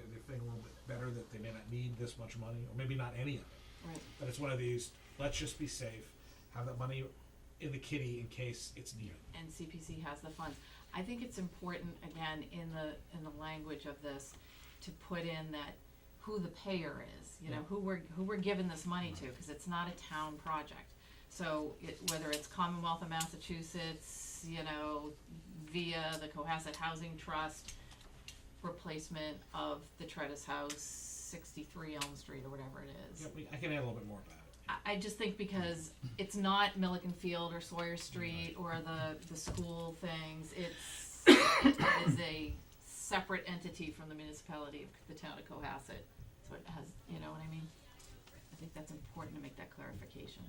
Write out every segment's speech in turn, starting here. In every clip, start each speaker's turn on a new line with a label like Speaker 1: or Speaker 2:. Speaker 1: bit better that they may not need this much money, or maybe not any of it.
Speaker 2: Right.
Speaker 1: But it's one of these, let's just be safe, have that money in the kitty in case it's needed.
Speaker 2: and CPC has the funds. I think it's important, again, in the, in the language of this, to put in that who the payer is, you know,
Speaker 1: Yeah.
Speaker 2: who we're, who we're giving this money to, cause it's not a town project. So it, whether it's Commonwealth of Massachusetts, you know, via the Cohasset Housing Trust, replacement of the Tredis House, sixty-three Elm Street or whatever it is.
Speaker 1: Yeah, we, I can add a little bit more about it.
Speaker 2: I, I just think because it's not Milliken Field or Sawyer Street or the, the school things, it's, it is a separate entity from the municipality of the town of Cohasset. So it has, you know what I mean? I think that's important to make that clarification.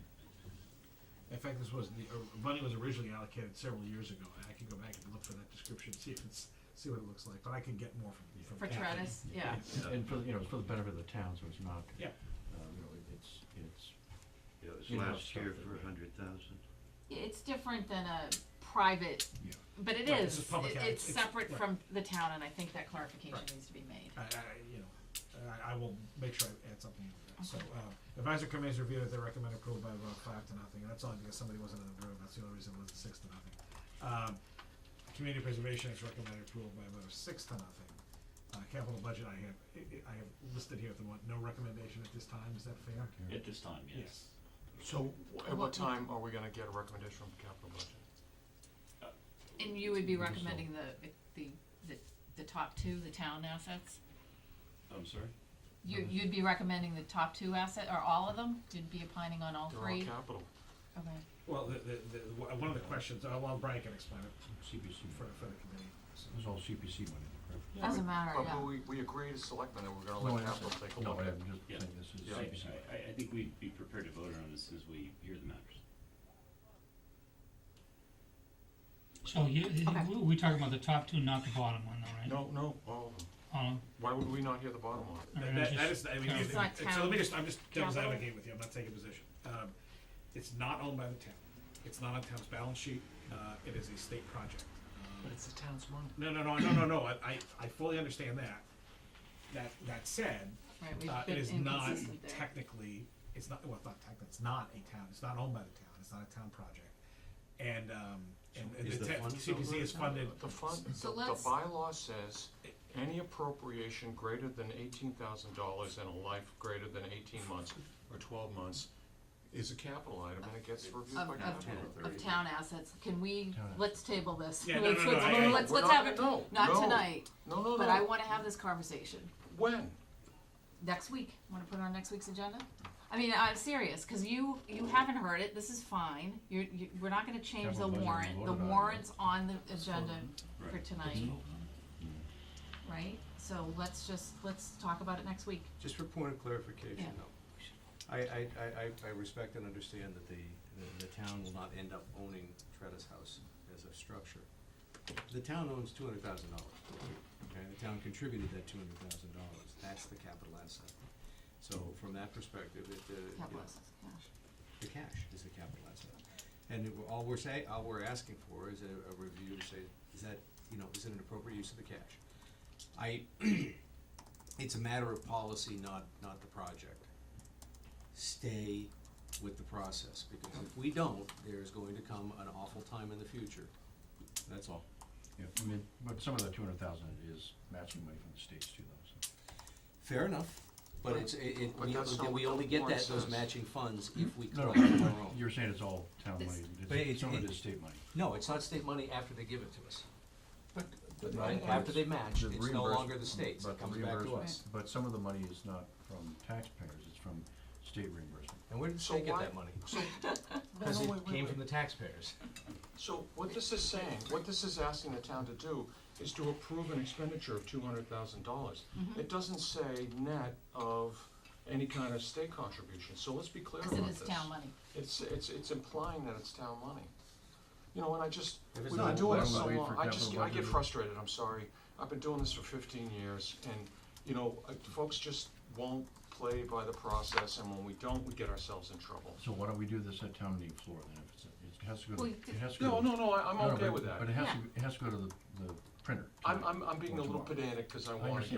Speaker 1: In fact, this was, the, uh, money was originally allocated several years ago, and I can go back and look for that description, see if it's, see what it looks like, but I can get more from, from
Speaker 2: For
Speaker 1: Kathy.
Speaker 2: Travis, yeah,
Speaker 3: And for, the- you know, it's for the benefit of the town, so it's not,
Speaker 1: Yeah,
Speaker 3: uh, you know, it- it's, it's,
Speaker 4: Yeah, it was
Speaker 3: You know,
Speaker 4: last year
Speaker 3: something,
Speaker 4: for a
Speaker 3: right.
Speaker 4: hundred thousand.
Speaker 2: it's different than a private,
Speaker 1: yeah.
Speaker 2: but it
Speaker 1: Right, this
Speaker 2: is,
Speaker 1: is public
Speaker 2: It-
Speaker 1: ad-
Speaker 2: it's
Speaker 1: it's-
Speaker 2: separate
Speaker 1: right.
Speaker 2: from the town and I think that clarification
Speaker 1: Right.
Speaker 2: needs to be made.
Speaker 1: I, I, you know, I, I will make sure I add something to that. So, uh, advisory committee's review that they recommend approval by about five to nothing, and that's only because somebody wasn't in the room, that's the only reason it was six to nothing. Um, community preservation is recommended approval by about six to nothing. Uh, capital budget, I have, I, I have listed here at the one, no recommendation at this time, is that fair?
Speaker 5: At this time, yes.
Speaker 6: So w- at
Speaker 2: Well,
Speaker 6: what time are we gonna get a recommendation from capital budget?
Speaker 2: And you would be recommending the, the, the, the top two, the town assets?
Speaker 5: I'm sorry?
Speaker 2: You, you'd be recommending the top two asset, or all of them? You'd be opining on all
Speaker 6: They're all
Speaker 2: three?
Speaker 6: capital.
Speaker 2: Okay.
Speaker 1: Well, the, the, the, wha- one of the questions, uh, well, Brian can explain it
Speaker 3: CPC,
Speaker 1: for, for the committee, so.
Speaker 3: it was all CPC money, correct?
Speaker 2: Doesn't matter,
Speaker 6: But
Speaker 2: yeah.
Speaker 6: we, we agreed as selectmen that we're
Speaker 3: No,
Speaker 6: gonna
Speaker 3: I
Speaker 6: let capital
Speaker 3: understand.
Speaker 6: take a
Speaker 3: No,
Speaker 6: look
Speaker 3: but
Speaker 6: at
Speaker 3: I'm just
Speaker 5: Yeah.
Speaker 3: saying this is
Speaker 6: Yeah.
Speaker 5: I,
Speaker 3: CPC.
Speaker 5: I, I think we'd be prepared to vote on this as we hear the matters.
Speaker 7: So you,
Speaker 2: Okay.
Speaker 7: we- we talking about the top two, not the bottom one though, right?
Speaker 6: No, no, all of them.
Speaker 7: Um,
Speaker 6: Why would we not hear the bottom line?
Speaker 7: I
Speaker 1: That,
Speaker 7: mean,
Speaker 1: that-
Speaker 7: just-
Speaker 1: that is, I mean,
Speaker 7: It's
Speaker 1: it-
Speaker 2: not
Speaker 1: it- so let me
Speaker 2: town
Speaker 1: just, I'm just devil's
Speaker 2: capital.
Speaker 1: advocate with you, I'm not taking a position. Um, It's not owned by the town, it's not on town's balance sheet, uh, it is a state project. Um,
Speaker 6: it's the town's money.
Speaker 1: No, no, no, no, no, no, I- I, I fully understand that. That, that said,
Speaker 2: Right,
Speaker 1: uh, it
Speaker 2: we've been
Speaker 1: is not
Speaker 2: inconsistent there.
Speaker 1: technically, it's not, well, it's not technically, it's not a town, it's not owned by the town, it's not a town project. And, um, and and
Speaker 4: Is
Speaker 1: the
Speaker 4: the
Speaker 1: te-
Speaker 4: fund
Speaker 1: CPC is funded,
Speaker 6: The fund, the,
Speaker 2: So
Speaker 6: the
Speaker 2: let's-
Speaker 6: bylaw says, any appropriation greater than eighteen thousand dollars in a life greater than eighteen months or twelve months is a capital item and it gets reviewed by
Speaker 2: Of,
Speaker 6: capital.
Speaker 2: of, of town assets, can we,
Speaker 3: Town assets.
Speaker 2: let's table this.
Speaker 1: Yeah, no, no,
Speaker 2: Let's-
Speaker 1: no,
Speaker 2: let's-
Speaker 1: I- I-
Speaker 2: Let's,
Speaker 6: We're
Speaker 2: let's
Speaker 6: not
Speaker 2: have it,
Speaker 6: gonna- no,
Speaker 2: not
Speaker 6: no.
Speaker 2: tonight,
Speaker 6: No, no, no.
Speaker 2: but I wanna have this conversation
Speaker 6: When?
Speaker 2: next week. Wanna put it on next week's agenda? I mean, I'm serious, cause you, you haven't heard it, this is fine, you're, you, we're not gonna change the
Speaker 3: Capital budget, we
Speaker 2: warrant, the
Speaker 3: voted on it.
Speaker 2: warrant's on the agenda for
Speaker 5: Right.
Speaker 2: tonight. right? So let's just, let's talk about it next week.
Speaker 8: Just for point of clarification,
Speaker 2: Yeah.
Speaker 8: though. I, I, I, I- I respect and understand that the, the- the town will not end up owning Tretta's house as a structure. The town owns two hundred thousand dollars, okay, the town contributed that two hundred thousand dollars, that's the capital asset. So from that perspective, it, uh, you
Speaker 2: Capital
Speaker 8: know,
Speaker 2: assets, yeah.
Speaker 8: the cash is the capital asset. And it- all we're say, all we're asking for is a, a review to say, is that, you know, is it an appropriate use of the cash? I, it's a matter of policy, not, not the project. Stay with the process, because if we don't, there's going to come an awful time in the future. That's all.
Speaker 3: Yeah, I mean, but some of the two hundred thousand is matching money from the states too, though, so.
Speaker 8: Fair enough, but it's, it, it,
Speaker 6: But
Speaker 8: we,
Speaker 6: that's not
Speaker 8: we
Speaker 6: what
Speaker 8: only
Speaker 6: the
Speaker 8: get
Speaker 6: warrant
Speaker 8: that, those
Speaker 6: says.
Speaker 8: matching funds if we
Speaker 3: No,
Speaker 8: collect on our own.
Speaker 3: no, you're saying it's all town
Speaker 2: This-
Speaker 3: money,
Speaker 8: But
Speaker 3: it's,
Speaker 8: it's-
Speaker 3: some of
Speaker 8: it-
Speaker 3: it is state money.
Speaker 8: No, it's not state money after they give it to us.
Speaker 3: But,
Speaker 8: Right, after they match, it's no longer the state's, it
Speaker 3: But the
Speaker 8: comes back to us.
Speaker 3: reimbursement, but some of the money is not from taxpayers, it's from state reimbursement.
Speaker 8: And where did
Speaker 6: So
Speaker 8: they get
Speaker 6: why-
Speaker 8: that money?
Speaker 6: So,
Speaker 8: Cause
Speaker 6: No,
Speaker 8: it
Speaker 6: wait, wait,
Speaker 8: came
Speaker 6: wait.
Speaker 8: from the taxpayers.
Speaker 6: So what this is saying, what this is asking the town to do is to approve an expenditure of two hundred thousand dollars.
Speaker 2: Mm-hmm.
Speaker 6: It doesn't say net of any kind of state contribution, so let's be clear about
Speaker 2: Because it
Speaker 6: this.
Speaker 2: is town money.
Speaker 6: It's, it's, it's implying that it's town money. You know, and I just,
Speaker 8: If it's
Speaker 6: we've been
Speaker 8: not,
Speaker 6: doing
Speaker 3: why
Speaker 6: this
Speaker 3: don't
Speaker 6: so
Speaker 3: we wait
Speaker 6: long,
Speaker 3: for
Speaker 6: I just,
Speaker 3: capital
Speaker 6: I get
Speaker 3: budget?
Speaker 6: frustrated, I'm sorry. I've been doing this for fifteen years and, you know, uh, folks just won't play by the process and when we don't, we get ourselves in trouble.
Speaker 3: So why don't we do this at town meeting floor then, if it's, it has to go,
Speaker 2: Well,
Speaker 3: to-
Speaker 2: you could-
Speaker 3: it has to go.
Speaker 6: No,
Speaker 3: to-
Speaker 6: no, no, I, I'm
Speaker 3: No, no,
Speaker 6: okay
Speaker 3: but-
Speaker 6: with that.
Speaker 3: But it has
Speaker 2: Yeah.
Speaker 3: to, it has to go to the, the printer.
Speaker 6: I'm,
Speaker 3: tonight
Speaker 6: I'm, I'm being
Speaker 3: or
Speaker 6: a little
Speaker 3: tomorrow.
Speaker 6: pedantic because I
Speaker 3: I
Speaker 6: want to
Speaker 3: understand,